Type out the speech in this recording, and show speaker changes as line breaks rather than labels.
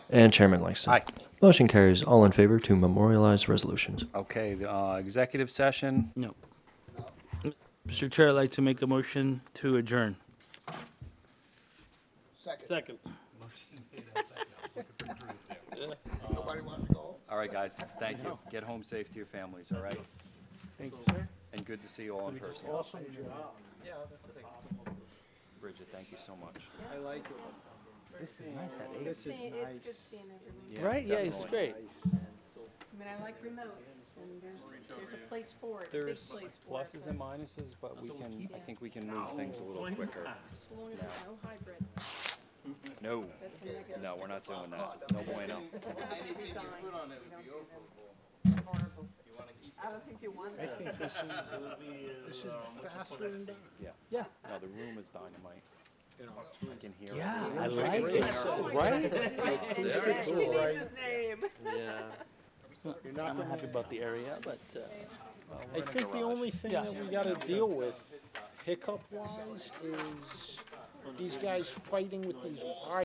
And Chairman Langston.
Aye.
Motion carries. All in favor to memorialize resolutions.
Okay, the uh, executive session,
No. Mr. Chair, I'd like to make a motion to adjourn.
Second.
Nobody wants to go?
all right, guys, thank you. Get home safe to your families, all right?
Thank you, sir.
And good to see you all in person.
Awesome job.
Bridget, thank you so much.
I like it. This is
It's
nice
it's good seeing everyone.
Right? Yeah, it's
definitely.
great.
I mean, I like remote, and there's, there's a place for it, a big
There's
place for it.
pluses and minuses, but we can, I think we can move things a little quicker.
As long as there's no hybrid,
No,
that's a negative.
no, we're not doing that. No bueno.
Resign. You don't do that.
I don't think you want
I
that.
think this is, this is faster than that.
Yeah.
Yeah.
No, the room is dynamite. I can hear it.
Yeah, I like it. Right?
And
Very
say-
cool, right?
His name.
I'm
You're not gonna
not
have
happy about the area, but, uh.
I think the only thing that we gotta deal with hiccup wise is these guys fighting with these